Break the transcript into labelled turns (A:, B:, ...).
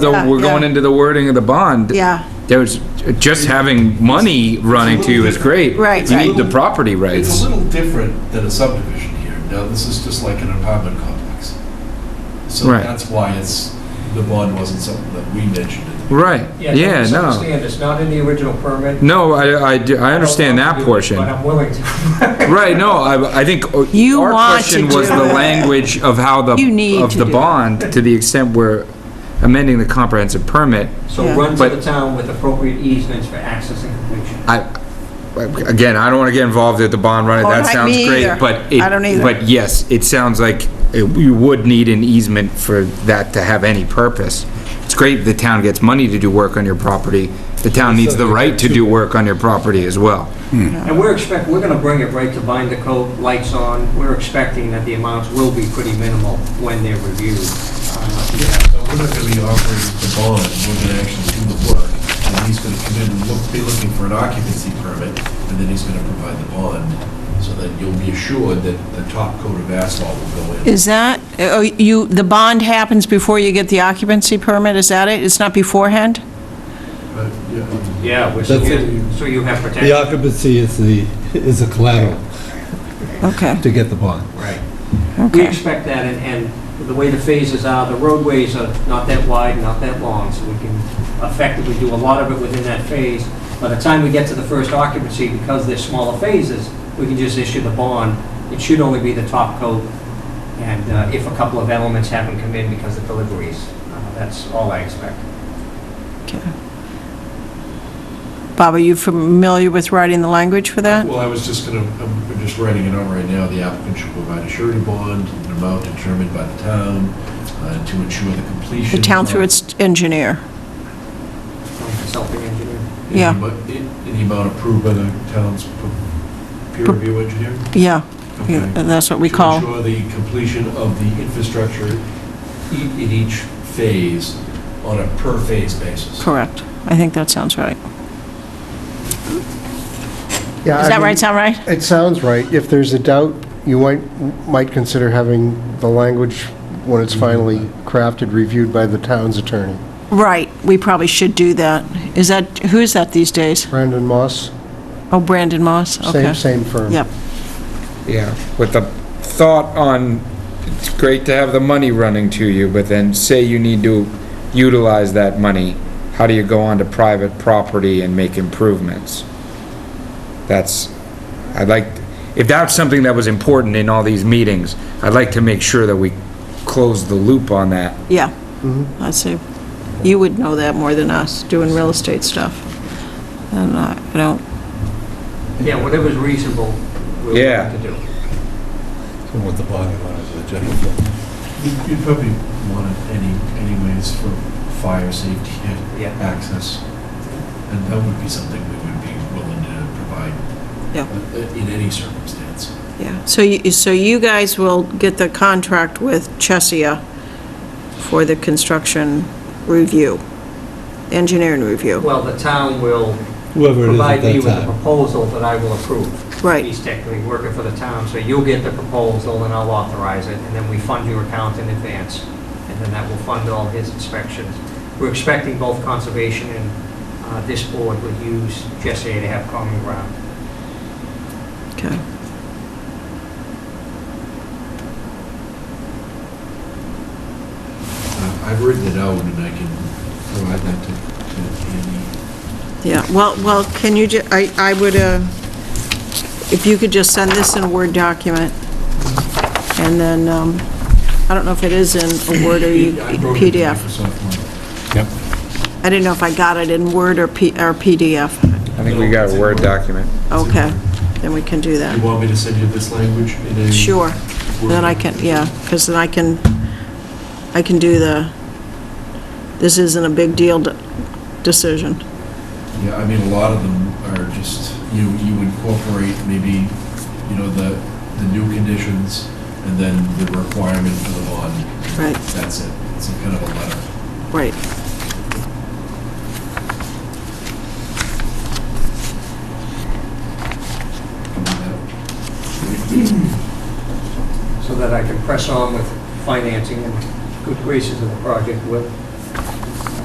A: So we're going
B: yeah.
A: into the wording of the bond.
B: Yeah.
A: There's, just having money running to you is great.
B: Right,
A: You
B: right.
A: need the property
C: It's
A: rights.
C: a little different than a subdivision here. Now, this is just like an apartment complex. So
A: Right.
C: that's why it's, the bond wasn't something that we mentioned. at the-
A: Right, yeah, no.
D: Understand, it's not in the original permit.
A: No, I, I, do- I understand
D: I don't want to
A: that portion.
D: do it, But I'm willing to.
A: Right, no, I, I think uh,
B: You
A: our
B: want
A: question
B: to
A: was
B: do
A: the
B: it.
A: language of how the,
B: You need
A: of
B: to
A: the
B: do it.
A: bond, to the extent we're amending the comprehensive permit.
D: So
B: Yeah.
D: run to
A: But-
D: the town with appropriate easements for access and completion.
A: I, again, I don't want to get involved at the bond running,
B: Oh,
A: that
B: right,
A: sounds
B: me either.
A: great, but. it-
B: I don't either.
A: But yes, it sounds like it- you would need an easement for that to have any purpose. It's great the town gets money to do work on your property, the town needs the right to do work on your property as well.
D: And we're expect, we're gonna bring it right to bind the coat, lights on. We're expecting that the amounts will be pretty minimal when they're reviewed. Uh, yeah.
C: So we're not going to be offering the bond, we're going to actually do the work. And he's going to come in and look, be looking for an occupancy permit, and then he's going to provide the bond. So that you'll be assured that the top coat of asphalt will go in.
B: Is that, oh, you, the bond happens before you get the occupancy permit, is that it? It's not beforehand?
C: But, yeah,
D: Yeah, which
E: That's
D: is- so you have
E: The
D: protection.
E: occupancy is the, is a collateral
B: Okay,
E: to get the bond.
D: Right. We
B: okay.
D: expect that, and, and the way the phases are, the roadways are not that wide, not that long, so we can effectively do a lot of it within that phase. By the time we get to the first occupancy, because they're smaller phases, we can just issue the bond. It should only be the top coat, and uh, if a couple of elements haven't come in because of deliveries, Uh, that's all I expect.
B: Bob, are you familiar with writing the language for that?
C: Well, I was just going to, I'm just writing it out right now. The applicant should provide a surety bond, an amount determined by the town uh, to ensure the
B: The
C: completion.
B: town through
C: of-
B: its engineer,
D: From consulting engineer.
C: in the
B: yeah.
C: amo- In in the amount approved by the town's p- peer
B: Pro-
C: review engineer?
B: yeah, Uh,
C: Okay.
B: yeah, that's what we
C: To
B: call.
C: ensure the completion of the infrastructure e- in each phase on a per-phase basis.
B: Correct. I think that sounds right.
F: Yeah,
B: Is
F: I
B: that
F: mean,
B: right, sound right?
F: It sounds right. If there's a doubt, you might, might consider having the language, when it's finally crafted, reviewed by the town's attorney.
B: Right, we probably should do that. Is that, who is that these days?
F: Brandon Moss,
B: Oh, Brandon Moss, okay.
F: same, same firm.
B: Yep,
A: Yeah, with the thought on, it's great to have the money running to you, but then say you need to utilize that money, how do you go onto private property and make improvements? That's, I'd like, if that's something that was important in all these meetings, I'd like to make sure that we close the loop on that.
B: yeah. I see. You would know that more than us, doing real estate stuff. And I I don't,
D: Yeah, whatever's reasonable, we're
A: Yeah.
D: willing to do.
E: And what the bond amount is, the general fund.
C: You'd- You'd probably want it any, anyways for fire safety and
D: Yeah.
C: access. And that would be something we would be willing to provide
B: Yeah.
C: uh, in any circumstance.
B: yeah. So you, so you guys will get the contract with Chesia for the construction review, engineering review,
D: Well, the town will
E: Whoever it is
D: provide
E: at
D: me with
E: that
D: a
E: time.
D: proposal that I will approve.
B: Right.
D: He's technically working for the town, so you'll get the proposal and I'll authorize it, and then we fund your account in advance, and then that will fund all his inspections. We're expecting both conservation and uh, this board would use Jesse to have common ground.
B: okay.
C: Uh, I've written it out and I can provide that to, to Andy.
B: Yeah, well, well, can you, ju- I, I would, uh, if you could just send this in a Word document, and then, um, I don't know if it is in a Word or you-
C: I wrote it to
B: PDF.
C: Microsoft Word.
B: I didn't know if I got it in Word or P, or PDF.
A: I think we got a Word document.
B: Okay, then we can do that.
C: You want me to send you this language in a?
B: Sure.
C: Word?
B: Then I can, yeah, because then I can, I can do the, this isn't a big deal de- decision.
C: Yeah, I mean, a lot of them are just, you, you incorporate maybe, you know, the, the new conditions and then the requirement for the bond.
B: Right.
C: That's it. It's a kind of a letter.
B: Right.
D: so that I can press on with financing and good graces of the project with